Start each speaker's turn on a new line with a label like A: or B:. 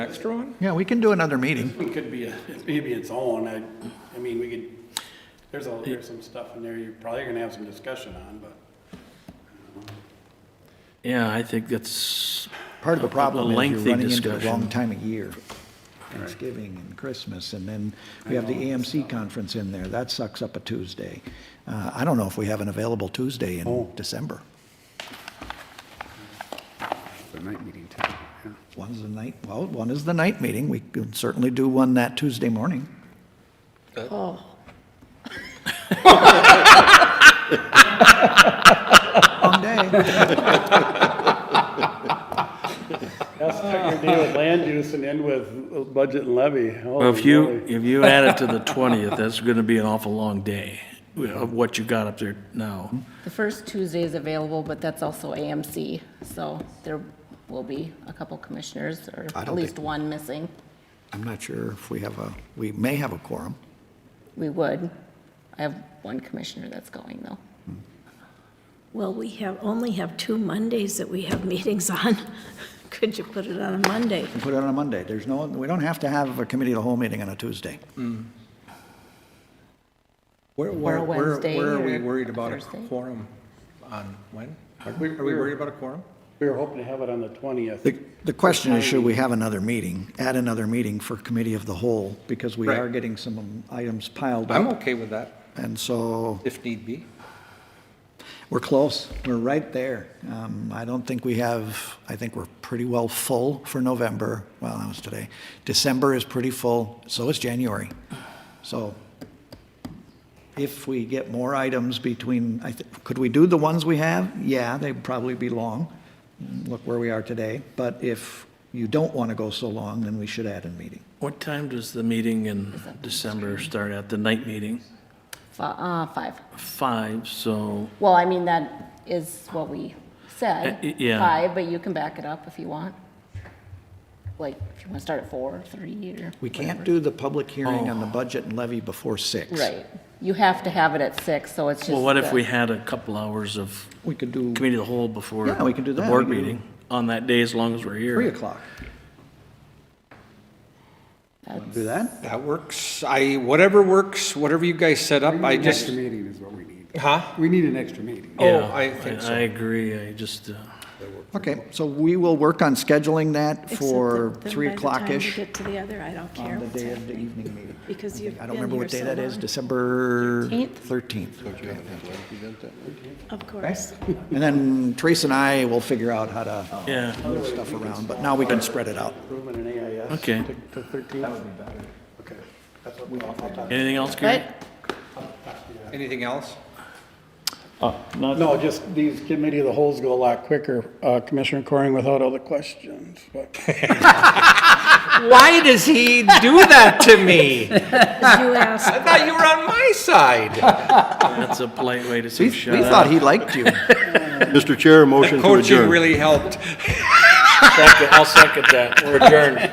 A: extra one?
B: Yeah, we can do another meeting.
C: It could be, a- maybe its own, I, I mean, we could, there's a, there's some stuff in there you're probably gonna have some discussion on, but.
A: Yeah, I think that's,
B: Part of the
A: A- a
B: problem is
A: lengthy
B: you're running into the
A: discussion.
B: wrong time of year. Thanksgiving and Christmas, and then we have the AMC conference in there. That sucks up a Tuesday. Uh, I don't know if we have an available Tuesday
D: Oh.
B: in December.
D: The night meeting too, yeah.
B: One's the night, well, one is the night meeting. We could certainly do one that Tuesday morning. Oh. Long day.
C: That's not your deal with land use and end with budget and levy.
B: Oh,
A: well, if you, if you add it to the 20th, that's going to be an awful long day of what you got up there now.
E: The first Tuesday is available, but that's also AMC, so there will be a couple commissioners, or
B: I don't
E: at least
B: think-
E: one missing.
B: I'm not sure if we have a, we may have a quorum.
E: We would. I have one commissioner that's going, though.
F: Well, we have, only have two Mondays that we have meetings on. Could you put it on a Monday?
B: Put it on a Monday. There's no, we don't have to have a committee of the whole meeting on a Tuesday.
G: Where,
E: Or
G: where,
E: a
G: where
E: Wednesday
G: where are we
E: or
G: worried about a
E: Thursday?
G: quorum on when? Are
C: We-
G: we
C: we
G: are we
C: were-
G: worried about a quorum?
C: We were hoping to have it on the twentieth.
B: The, the question is, should we have another meeting, add another meeting for committee of the whole? Because we are
G: Right.
B: getting some items piled
G: I'm
B: up.
G: okay with that,
B: And so
G: if need be.
B: we're close. We're right there. Um, I don't think we have, I think we're pretty well full for November. Well, that was today. December is pretty full. So is January. So if we get more items between, I thi- could we do the ones we have? Yeah, they'd probably be long. Look where we are today. But if you don't want to go so long, then we should add a meeting.
A: What time does the meeting in December start at, the night meeting?
E: Fi- uh, Five.
A: Five, so,
E: Well, I mean, that is what we said.
A: Uh, y- yeah.
E: Five, but you can back it up if you want. Like, if you want to start at four, three, or.
B: We can't
E: whatever.
B: do the public hearing on the budget and levy before six.
E: Right. You have to have it at six, so it's just.
A: well, what if
E: the-
A: we had a couple hours of
B: We could do
A: committee of the whole before?
B: Yeah, we can do
A: The
B: that.
A: board
B: We can do-
A: meeting on that day, as long as we're here.
B: three o'clock. Do that?
G: That works. I, whatever works, whatever you guys set up, I
D: An extra
G: just,
D: meeting is what we need.
G: huh?
D: We need an extra meeting.
G: Oh,
A: Yeah,
G: I think so.
A: I agree, I just, uh,
B: Okay, so we will work on scheduling that
F: Except
B: for
F: that then
B: three
F: By the
B: o'clock-ish
F: time we get to the other, I don't care
B: on the
F: what's
B: day of the
F: happening.
B: evening meeting.
F: Because you've
B: I
F: been
B: don't remember
F: here
B: what day
F: so
B: that is,
F: long.
B: December
E: 13th?
B: 13th.
F: Of course.
B: And then Trace and I will figure out how to
A: yeah,
B: move stuff around, but now we can spread it out.
C: Improvement in AIS.
A: Okay.
C: To to thirteen.
A: anything else, Gary?
E: But
G: Anything else?
C: No, just these committee of the holes go a lot quicker, uh, Commissioner Coring without all the questions, but.
G: Why does he do that to me?
F: You asked,
G: I thought you were on my side.
A: That's a polite way to
B: We
A: say shut
B: we
A: up.
B: thought he liked you.
H: Mr. Chair, motion to adjourn.
G: Coaching really helped.
A: I'll second that, we're adjourned.